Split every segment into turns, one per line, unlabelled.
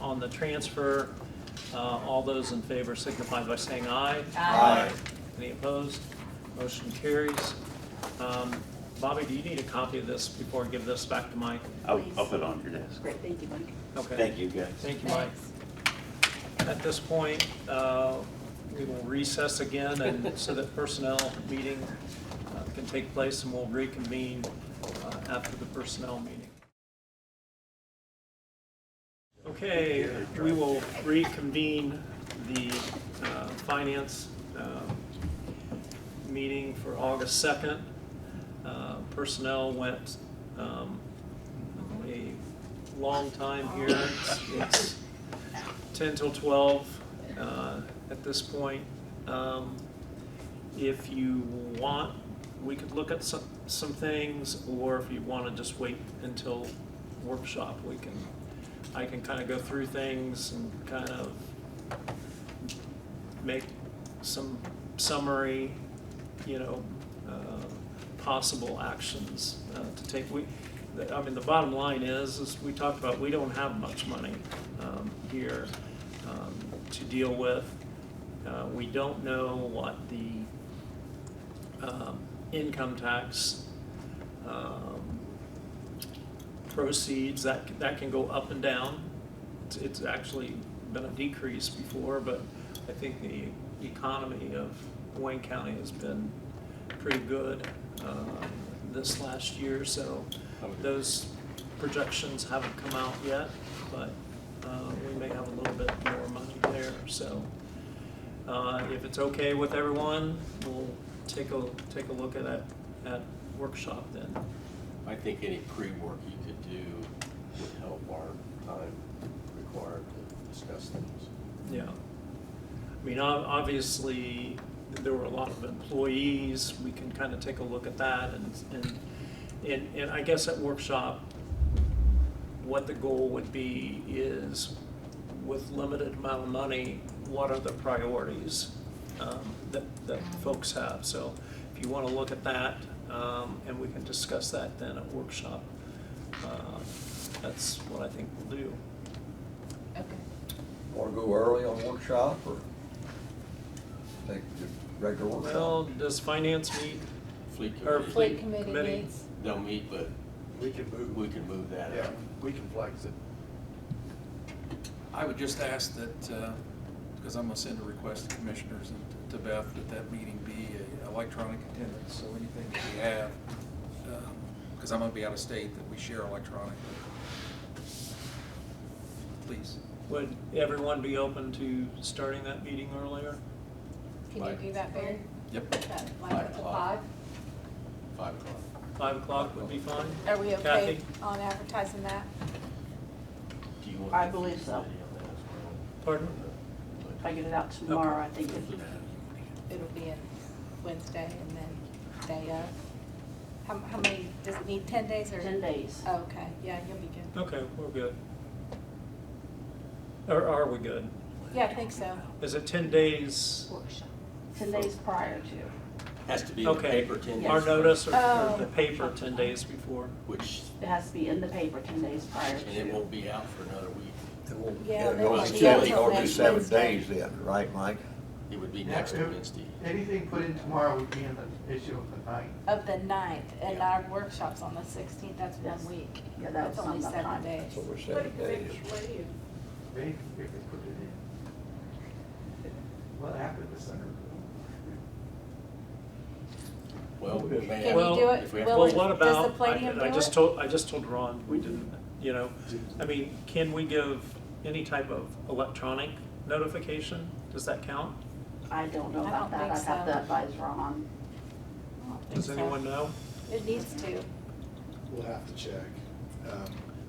on the transfer. Uh, All those in favor signify by saying aye.
Aye.
Any opposed? Motion carries. Um, Bobby, do you need a copy of this before I give this back to Mike?
I'll, I'll put it on your desk.
Great, thank you, Mike.
Okay.
Thank you, guys.
Thank you, Mike. At this point, uh, we will recess again and so that personnel meeting uh, can take place and we'll reconvene uh, after the personnel meeting. Okay, we will reconvene the uh, finance uh, meeting for August 2nd. Uh, Personnel went um, a long time here. It's- It's 10 till 12 uh, at this point. Um, If you want, we could look at some, some things, or if you want to just wait until workshop, we can, I can kind of go through things and kind of make some summary, you know, uh, possible actions uh, to take. We, the- I mean, the bottom line is, is we talked about, we don't have much money um, here um, to deal with. Uh, We don't know what the um, income tax um, proceeds, that, that can go up and down. It's, it's actually been a decrease before, but I think the economy of Wayne County has been pretty good um, this last year, so those projections haven't come out yet, but uh, we may have a little bit more money there, so. uh, If it's okay with everyone, we'll take a, take a look at that, at workshop then.
I think any pre-work you could do would help our time required to discuss things.
Yeah. I mean, ob- obviously, there were a lot of employees, we can kind of take a look at that and, and, and, and I guess at workshop, what the goal would be is with limited amount of money, what are the priorities um, that, that folks have? So if you want to look at that, um, and we can discuss that then at workshop, uh, that's what I think we'll do.
Okay.
Want to go early on workshop or take the regular workshop?
Well, does finance meet
Fleet
Or
committee,
Fleet committee
Committee.
meets,
they'll meet, but
We can
we
move,
can move that
yeah,
out.
we can flex it.
I would just ask that, uh, because I'm gonna send a request to commissioners and to Beth, that that meeting be a electronic attendance, so anything that we have, because I'm gonna be out of state, that we share electronically. Please.
Would everyone be open to starting that meeting earlier?
can you do that, Barry?
Yep.
About Like to five?
o'clock. Five o'clock.
Five o'clock would be fine?
Are we okay
Kathy,
on advertising that?
Do you want?
I
the
believe
fleet
so.
committee on that as
pardon?
well?
If I get it out tomorrow, I think it
It'll be in Wednesday and then day of. How, how many, does it need ten days or? Oh,
10 days.
Oh.
Okay, yeah, you'll be good.
Okay, we're good. Or are we good?
Yeah, I think so.
Is it ten days,
Workshop.
10 days prior to.
Has to be in the
Okay.
paper ten
our
days,
notice or or
Oh.
the paper ten days before?
which,
It has to be in the paper 10 days prior
and it
to.
won't be out for another week.
It won't-
Yeah,
it'll
they
go
won't
to
be
seven-
until
it'll be
next
seven
Wednesday.
days then, right, Mike?
It would be next
Yeah.
Wednesday.
Anything put in tomorrow would be in the issue of the night.
Of the ninth, and
Yeah.
our workshop's on the sixteenth, that's
Yes.
one week.
Yeah, that
That's
was
only
on the
seven
ninth.
days.
That's what we're saying, days.
They, they could put it in. What happened to Center?
Well, we may have.
Can we
Well,
do it?
if we have-
Will
Well,
it-
what
does the
about,
Palladium
I I
do
just
it?
told, I just told Ron, we didn't, you know,
Mm-hmm.
I mean, can we give any type of electronic notification? Does that count?
I don't know
I don't
about that.
think
I'd have to
so.
advise Ron.
I don't think
Does
so.
anyone know?
It needs to.
We'll have to check. Um,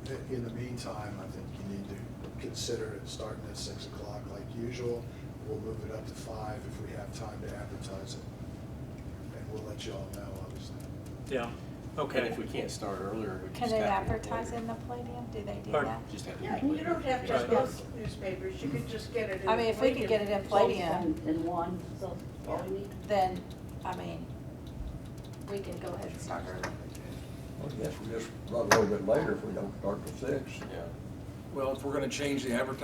i- In the meantime, I think you need to consider it starting at six o'clock like usual. We'll move it up to five if we have time to advertise it. And we'll let you all know, obviously.
Yeah, okay.
And if we can't start earlier, we
Can
just have to.
they
do it
advertise
later.
in the Palladium? Do they do
Pardon?
that?
Just have to. do
Yeah,
it
you
later.
don't have to
Right.
have both newspapers, you could just get it in.
I mean, if we could get it in Palladium,
In- In one, so all we need.
then, I mean, we can go ahead and start early.
I guess we just run a little bit later if we don't start till six.
Yeah.
Well, if we're gonna change the advertising